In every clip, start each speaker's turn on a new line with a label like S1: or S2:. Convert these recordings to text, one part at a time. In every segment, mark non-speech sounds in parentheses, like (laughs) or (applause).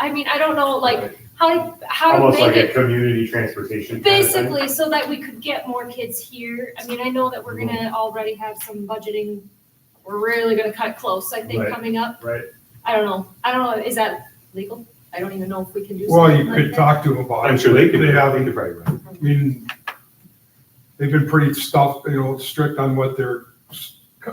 S1: I mean, I don't know, like, how, to- how to
S2: Almost
S1: make
S2: like a
S1: it,
S2: community transportation. kind of thing.
S1: basically, so that we could get more kids here. I mean, I know that we're
S2: Mm-hmm.
S1: gonna already have some budgeting, we're really gonna cut close, I think,
S2: Right.
S1: coming up.
S2: Right,
S1: I don't know, I don't know, is that legal? I don't even know if we can do
S3: Well, you
S1: something
S3: could
S1: like that.
S3: talk to them about it.
S2: I'm sure they could,
S3: have-
S2: they could probably run.
S3: I mean, they've been pretty stuffed, you know, strict on what their,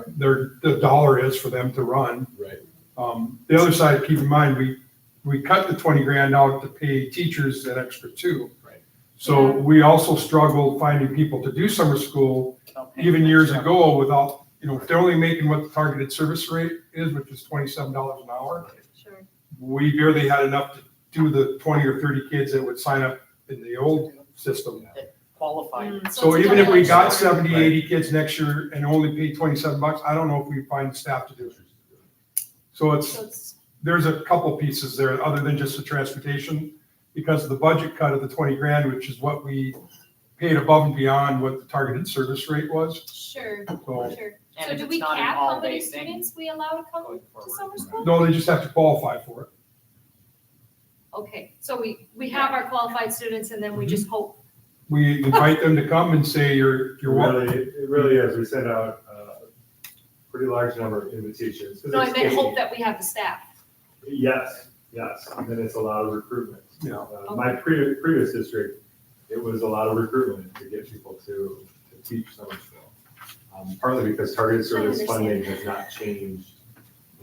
S3: their, the dollar is for them to run.
S4: Right.
S3: Um, the other side, keep in mind, we, we cut the twenty grand out to pay teachers an extra two.
S4: Right.
S3: So we also struggled finding people to do summer school, even years ago, without, you know, if they're only making what the targeted service rate is, which is twenty-seven dollars an hour
S1: Sure.
S3: we barely had enough to do the twenty or thirty kids that would sign up in the old system.
S5: Qualified.
S1: Mm,
S3: So
S1: it's
S3: even if we
S1: double-edged
S3: got
S1: sword.
S3: 70, 80 kids next year and only paid twenty-seven bucks, I don't know if we find staff to do it. So it's,
S1: So it's-
S3: there's a couple pieces there, other than just the transportation, because of the budget cut of the twenty grand, which is what we paid above and beyond what the targeted service rate was,
S1: Sure,
S3: so.
S1: sure.
S5: And
S1: So
S5: if
S1: do
S5: it's
S1: we
S5: not an
S1: cap how
S5: all-day
S1: many
S5: thing
S1: students we allow to come
S5: going
S1: to
S5: forward.
S1: summer school?
S3: No, they just have to qualify for it.
S1: Okay, so we, we have our qualified students and then we
S3: Mm-hmm.
S1: just hope,
S3: We invite them to come and say, you're,
S2: It
S3: you're welcome.
S2: really, it really is, we sent out uh, a pretty large number of invitations. 'cause
S1: no, I
S2: it's
S1: meant hope
S2: paid.
S1: that we have the staff.
S2: Yes, yes, and then it's a lot of recruitment.
S3: Yeah.
S2: Uh, My previous, previous district, it was a lot of recruitment to get people to, to teach summer school. Um, Partly because targeted service
S1: understand.
S2: funding has not changed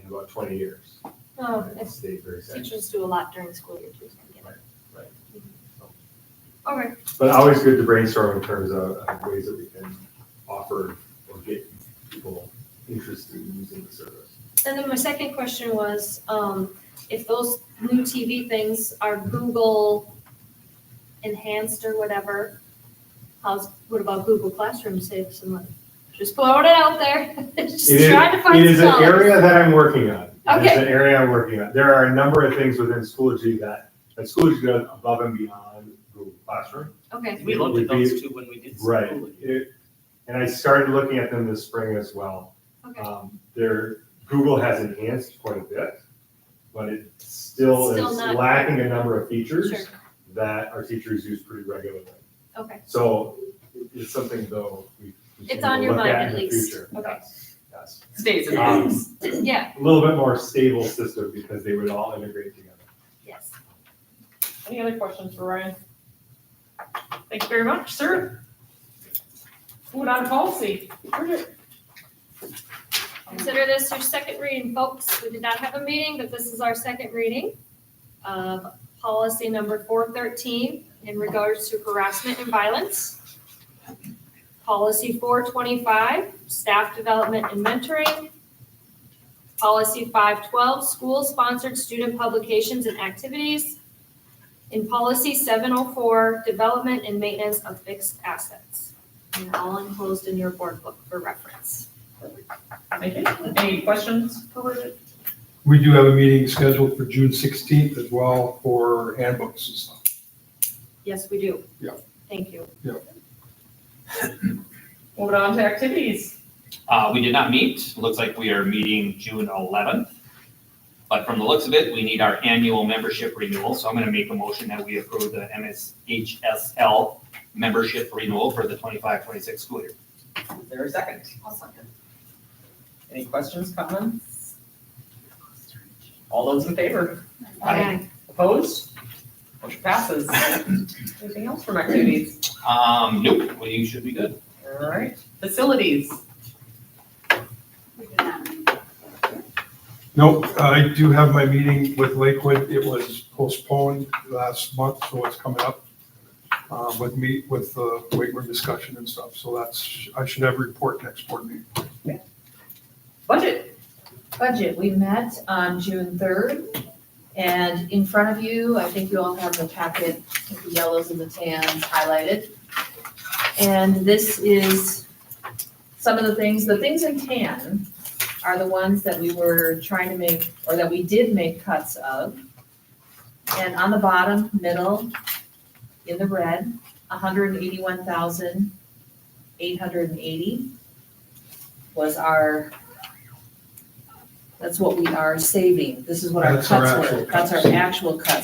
S2: in about twenty years.
S1: Oh,
S2: And It's stayed very steady.
S1: teachers do a lot during school year too.
S2: Right, right.
S1: Okay,
S2: But always good to brainstorm in terms of of ways that we can offer or get people interested in using the service.
S1: and then my second question was, um, if those new TV things are Google enhanced or whatever, how's, what about Google Classroom save some money? Just throwing it out there, (laughs) just
S2: It is-
S1: trying to find
S2: It is an
S1: scholars.
S2: area that I'm working on. It's
S1: Okay.
S2: an area I'm working on. There are a number of things within Schoology that, that Schoology does above and beyond Google Classroom.
S1: Okay,
S5: We looked at those two when we did.
S2: Right.
S5: schooling.
S2: It- And I started looking at them this spring as well.
S1: okay,
S2: Um, There, Google has enhanced quite a bit, but it still
S1: Still
S2: is
S1: not-
S2: lacking a number of
S1: sure,
S2: features that our teachers use pretty regularly.
S1: okay,
S2: So it- it's something though we. we
S1: It's
S2: should
S1: on your
S2: look
S1: mind
S2: in
S1: at
S2: the
S1: least.
S2: future.
S1: Okay.
S2: Yes, yes.
S5: Stays in
S2: Um,
S5: office.
S1: yeah,
S2: a little bit more stable system because they would all integrate together.
S1: yes.
S6: Any other questions for Ryan? Thank you very much, sir. Moving on to policy. Bridget.
S1: Consider this your second reading, folks. We did not have a meeting, but this is our second reading of policy number four thirteen in regards to harassment and violence. Policy four twenty-five, staff development and mentoring. Policy five twelve, school-sponsored student publications and activities. And policy seven oh four, development and maintenance of fixed assets. And all enclosed in your board book for reference.
S6: Thank you. Any questions for Bridget?
S3: We do have a meeting scheduled for June sixteenth as well for handbooks and stuff.
S1: Yes, we do.
S3: Yeah.
S1: Thank you.
S6: Moving on to activities.
S7: Uh, we did not meet. Looks like we are meeting June eleventh. But from the looks of it, we need our annual membership renewal, so I'm gonna make a motion that we approve the MSHSL membership renewal for the 25-26 school year.
S5: Is there a second? I'll second. Any questions, comments? All those in favor?
S1: Aye.
S5: Opposed? Motion passes. Anything else from activities?
S7: Um, nope, well, you should be good.
S5: All right, facilities.
S3: Nope, I do have my meeting with Lakewood. It was postponed last month, so it's coming up. uh, With me, with the weight room discussion and stuff, so that's, I should have a report next board meeting.
S5: Budget.
S8: Budget, we met on June third, and in front of you, I think you all have the packet, with the yellows and the tans highlighted. And this is some of the things, the things in tan are the ones that we were trying to make, or that we did make cuts of. And on the bottom, middle, in the red, hundred and eighty-one thousand, eight hundred and eighty was our That's what we are saving. This is what our
S3: That's our
S8: cuts
S3: actual
S8: were. That's our
S3: cuts.
S8: actual cuts.